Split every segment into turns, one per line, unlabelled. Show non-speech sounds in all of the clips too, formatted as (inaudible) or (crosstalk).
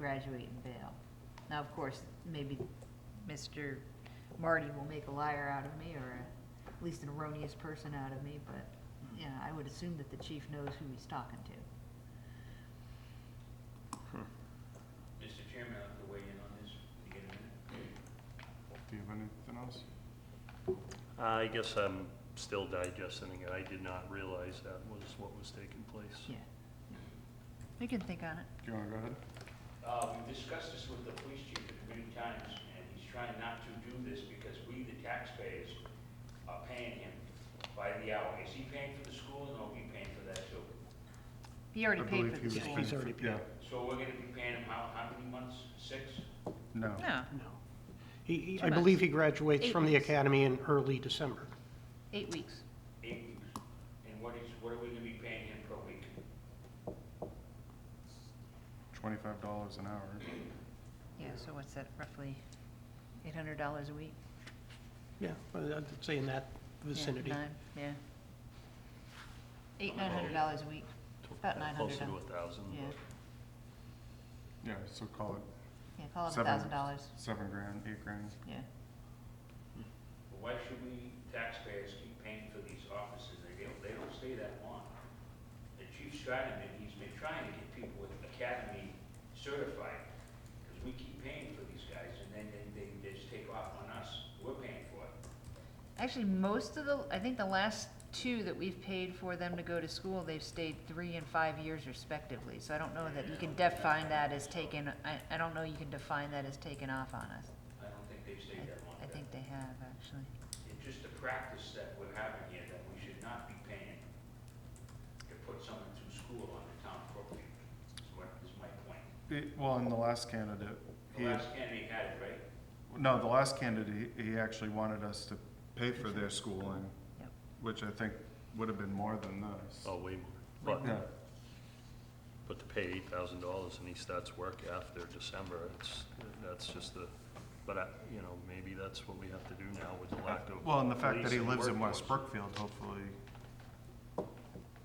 graduate and bail. Now, of course, maybe Mr. Marty will make a liar out of me, or a- at least an erroneous person out of me, but, you know, I would assume that the chief knows who he's talking to.
Mr. Chairman, I'd like to weigh in on this. Can you get a minute?
Do you have anything else?
I guess I'm still digesting it. I did not realize that was what was taking place.
Yeah. We can think on it.
Do you want to go ahead?
Uh, we've discussed this with the police chief many times, and he's trying not to do this because we, the taxpayers, are paying him by the hour. Is he paying for the school, and are we paying for that too?
He already
I
paid
believe
for
he
the
was
school.
paying for- Yeah,
So we're gonna be paying him how, how many months? Six?
no.
No,
No. He- He,
Two
I believe
months.
he graduates
Eight
from the
weeks.
academy in early December.
eight weeks.
Eight weeks? And what is, what are we gonna be paying him per week?
Twenty-five dollars an hour.
Yeah, so what's that, roughly eight hundred dollars a week?
Yeah, I'd I'd say in that
Yeah,
vicinity.
nine, Yeah. Eight, nine
Oh.
hundred dollars a week. About nine hundred
Closer to a
dollars.
thousand,
Yeah.
Yeah, so call it
Yeah, call it a
Seven.
thousand dollars,
seven grand, eight grand.
yeah.
Why should we taxpayers keep paying for these offices? They don't, they don't stay that long. The chief's trying, and he's been trying to get people with academy certified, because we keep paying for these guys, and then they, they they just take off on us. We're paying for it.
Actually, most of the, I think the last two that we've paid for them to go to school, they've stayed three and five years respectively. So I don't know that you can define that as taken, I, I don't know you can define that as taken off on us.
I don't think they've
I
stayed that long.
I think they have, actually.
It's just the practice that we're having here, that we should not be paying to put someone through school on the town property, is what, is my point.
It- Well, in the last candidate,
The
he,
last candidate had it, right?
no, the last candidate, he he actually wanted us to pay for their schooling,
Yep.
which I think would have been more than this.
oh, way more.
Yeah,
But, but to pay eight thousand dollars and he starts work after December, it's, that's just the, but I, you know, maybe that's what we have to do now with the lack of.
Uh, well, and the fact that
police
he
and
lives in
workforce.
West Brookfield, hopefully,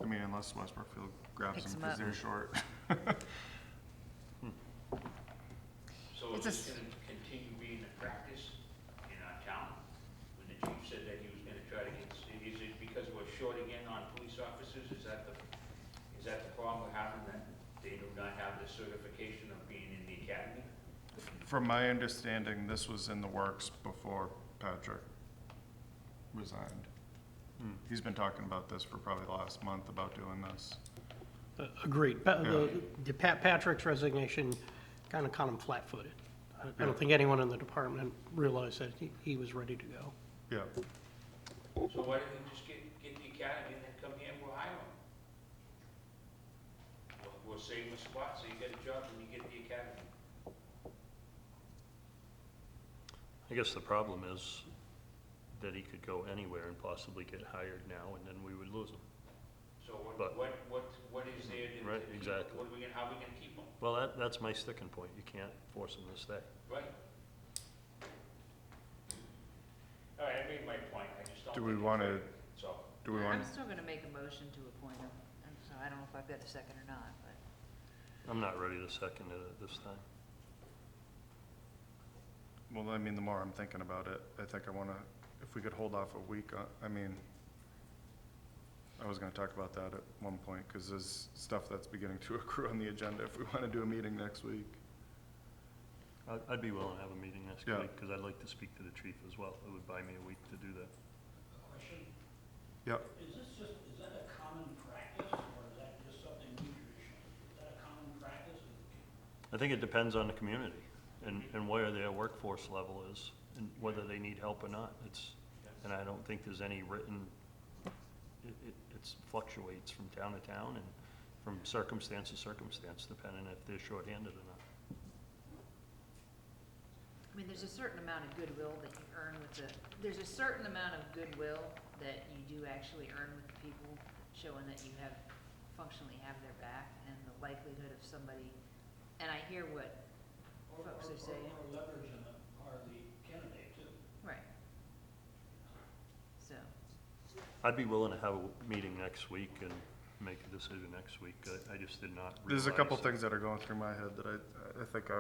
I mean, unless West Brookfield grabs
Picks
him
him
because
up.
they're short.
So is
It's a
this gonna continue being the practice in our town? When the chief said that he was gonna try to get, is it because we're short again on police officers? Is that the, is that the problem we're having, that they do not have the certification of being in the academy?
From my understanding, this was in the works before Patrick resigned.
Hmm.
He's been talking about this for probably the last month, about doing this.
Uh, Agreed. Pa-
Yeah.
the- the Pat, Patrick's resignation kind of caught him flat-footed. I- I
Yeah.
don't think anyone in the department realized that he, he was ready to go.
Yeah,
So why don't we just get, get the academy and then come here and we'll hire them? We'll, we'll save him a spot, so you get a job when you get the academy.
I guess the problem is that he could go anywhere and possibly get hired now and then we would lose him.
So what,
But-
what, what, what is there to?
Right,
to keep-
exactly.
What are we gonna, how are we gonna keep them?
Well, that, that's my sticking point. You can't force him to stay.
Right. All right, I made my point, I just don't.
do we
think it's
want to,
right. So,
do we want,
I'm still gonna make a motion to appoint him, and so I don't know if I've got a second or not, but.
I'm not ready to second it at this time.
well, I mean, the more I'm thinking about it, I think I want to, if we could hold off a week, uh, I mean, I was going to talk about that at one point, because there's stuff that's beginning to (laughs) accrue on the agenda if we want to do a meeting next week.
I'd, I'd be willing to have a meeting next
Yeah.
week because I'd like to speak to the chief as well. It would buy me a week to do that.
Question,
Yep,
is this just, is that a common practice, or is that just something we traditionally, is that a common practice?
I think it depends on the community and, and where their workforce level is and whether they need help or not. It's, and I don't think there's any written, it, it it's fluctuates from town to town and from circumstance to circumstance, depending if they're shorthanded or not.
I mean, there's a certain amount of goodwill that you earn with the, there's a certain amount of goodwill that you do actually earn with the people, showing that you have, functionally have their back, and the likelihood of somebody, and I hear what,
Or- or-
Folks are saying-
Or or leverage in the, or the candidate too.
right. So,
I'd be willing to have a meeting next week and make a decision next week. I, I just did not realize.
There's a couple things that are going through my head that I, I think I